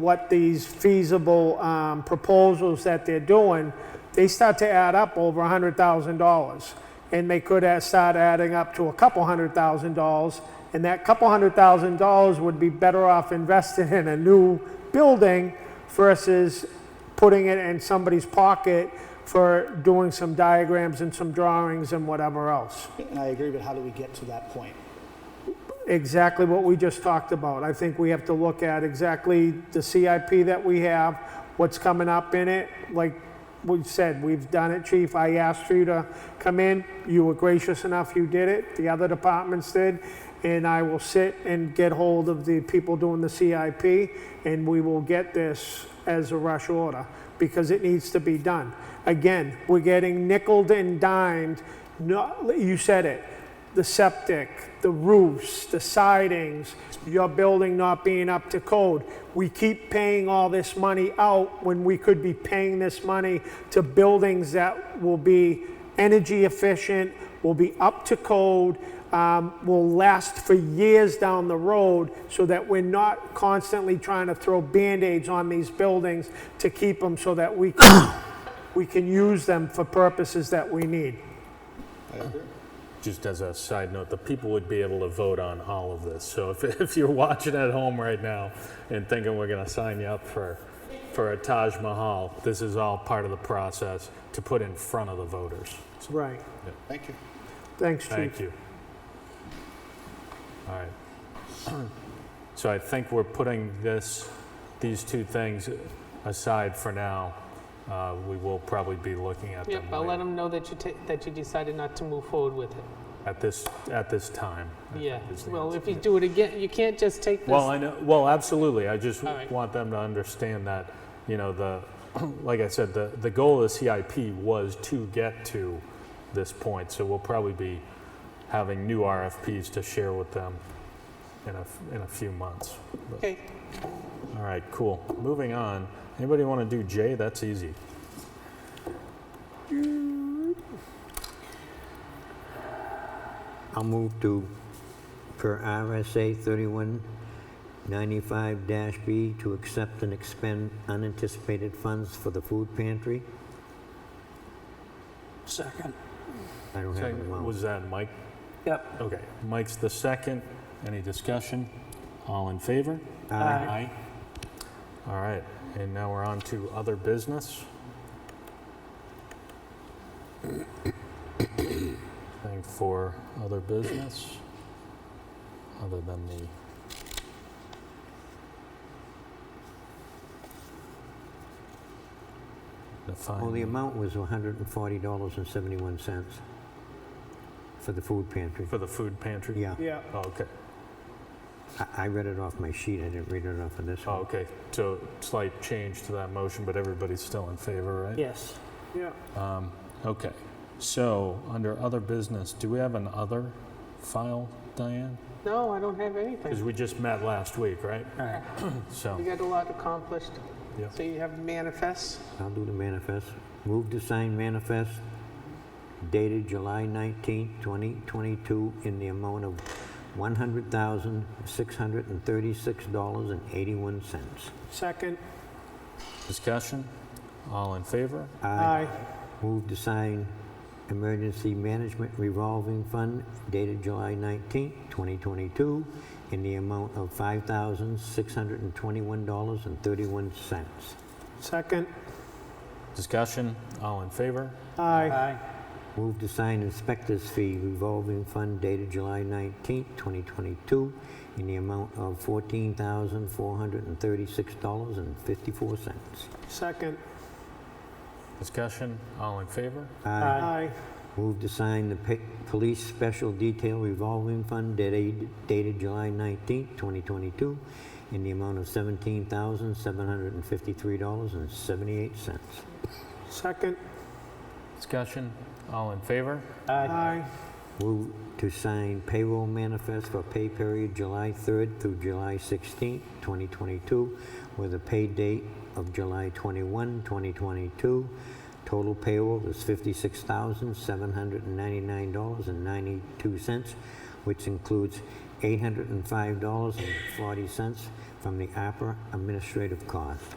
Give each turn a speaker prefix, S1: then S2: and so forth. S1: what these feasible um, proposals that they're doing, they start to add up over $100,000. And they could add- start adding up to a couple hundred thousand dollars. And that couple hundred thousand dollars would be better off invested in a new building versus putting it in somebody's pocket for doing some diagrams and some drawings and whatever else.
S2: And I agree, but how do we get to that point?
S1: exactly what we just talked about. I think we have to look at exactly the CIP that we have, what's coming up in it. Like we said, we've done it, chief. I asked you to come in. You were gracious enough, you did it. The other departments did. And I will sit and get hold of the people doing the CIP, and we will get this as a rush order because it needs to be done. Again, we're getting nickled and dimed. No, you said it the septic, the roofs, the sidings, your building not being up to code. We keep paying all this money out when we could be paying this money to buildings that will be energy efficient, will be up to code, um, will last for years down the road so that we're not constantly trying to throw Band-Aids on these buildings to keep them so that we can, we can use them for purposes that we need.
S3: Just as a side note, the people would be able to vote on all of this. So if, if you're watching at home right now and thinking we're going to sign you up for, for a Taj Mahal, this is all part of the process to put in front of the voters.
S1: Right.
S2: Thank you.
S1: Thanks, Chief.
S3: Thank you. All right. So I think we're putting this, these two things aside for now. Uh, We will probably be looking at them
S4: Yep, I'll let
S3: later.
S4: them know that you, ta- that you decided not to move forward with it.
S3: at this, at this time. I
S4: Yeah,
S3: think is the
S4: well,
S3: answer.
S4: if you do it again, you can't just take
S3: Well,
S4: this,
S3: I know, well, absolutely. I just
S4: All right.
S3: want them to understand that, you know, the, like I said, the, the goal of the CIP was to get to this point. So we'll probably be having new RFPs to share with them in a, f- in a few months. But-
S4: okay,
S3: All right, cool. Moving on. Anybody want to do J? That's easy.
S5: I'll move to, per RSA 3195-B, to accept and expend unanticipated funds for the food pantry.
S6: Second.
S5: I don't have an amount.
S3: Was that Mike?
S6: Yep.
S3: Okay, Mike's the second. Any discussion? All in favor?
S5: Aye.
S3: Aye. All right, and now we're on to other business. Thing for other business, other than the... The
S5: Well, the
S3: fine,
S5: amount was $140.71 for the food pantry.
S3: for the food pantry?
S5: Yeah,
S1: Yeah.
S3: Oh, Okay,
S5: I- I read it off my sheet, I didn't read it off of this
S3: Oh,
S5: one.
S3: okay, so slight change to that motion, but everybody's still in favor, right?
S6: Yes.
S1: Yeah.
S3: Um, Okay, so under other business, do we have an other file, Diane?
S4: no, I don't have
S3: Because
S4: anything.
S3: we just met last week, right?
S6: Right.
S3: So,
S4: We got a lot accomplished,
S3: Yeah.
S4: so you have manifests,
S5: I'll do the manifest. Move to sign manifest dated July 19, 2022, in the amount of $100,636.81.
S1: Second.
S3: discussion, all in favor?
S1: Aye.
S5: Move to sign emergency management revolving fund dated July 19, 2022, in the amount of $5,621.31.
S1: Second.
S3: Discussion, all in favor?
S1: Aye.
S6: Aye.
S5: Move to sign inspector's fee revolving fund dated July 19, 2022, in the amount of $14,436.54.
S1: Second.
S3: Discussion, all in favor?
S5: Aye.
S1: Aye.
S5: Move to sign the pa- police special detail revolving fund dated dated July 19, 2022, in the amount of $17,753.78.
S1: Second.
S3: Discussion, all in favor?
S1: Aye.
S5: Move to sign payroll manifest for pay period July 3rd through July 16th, 2022, with a pay date of July 21, 2022. Total payroll is $56,799.92, which includes $805.40 from the APRA administrative cost.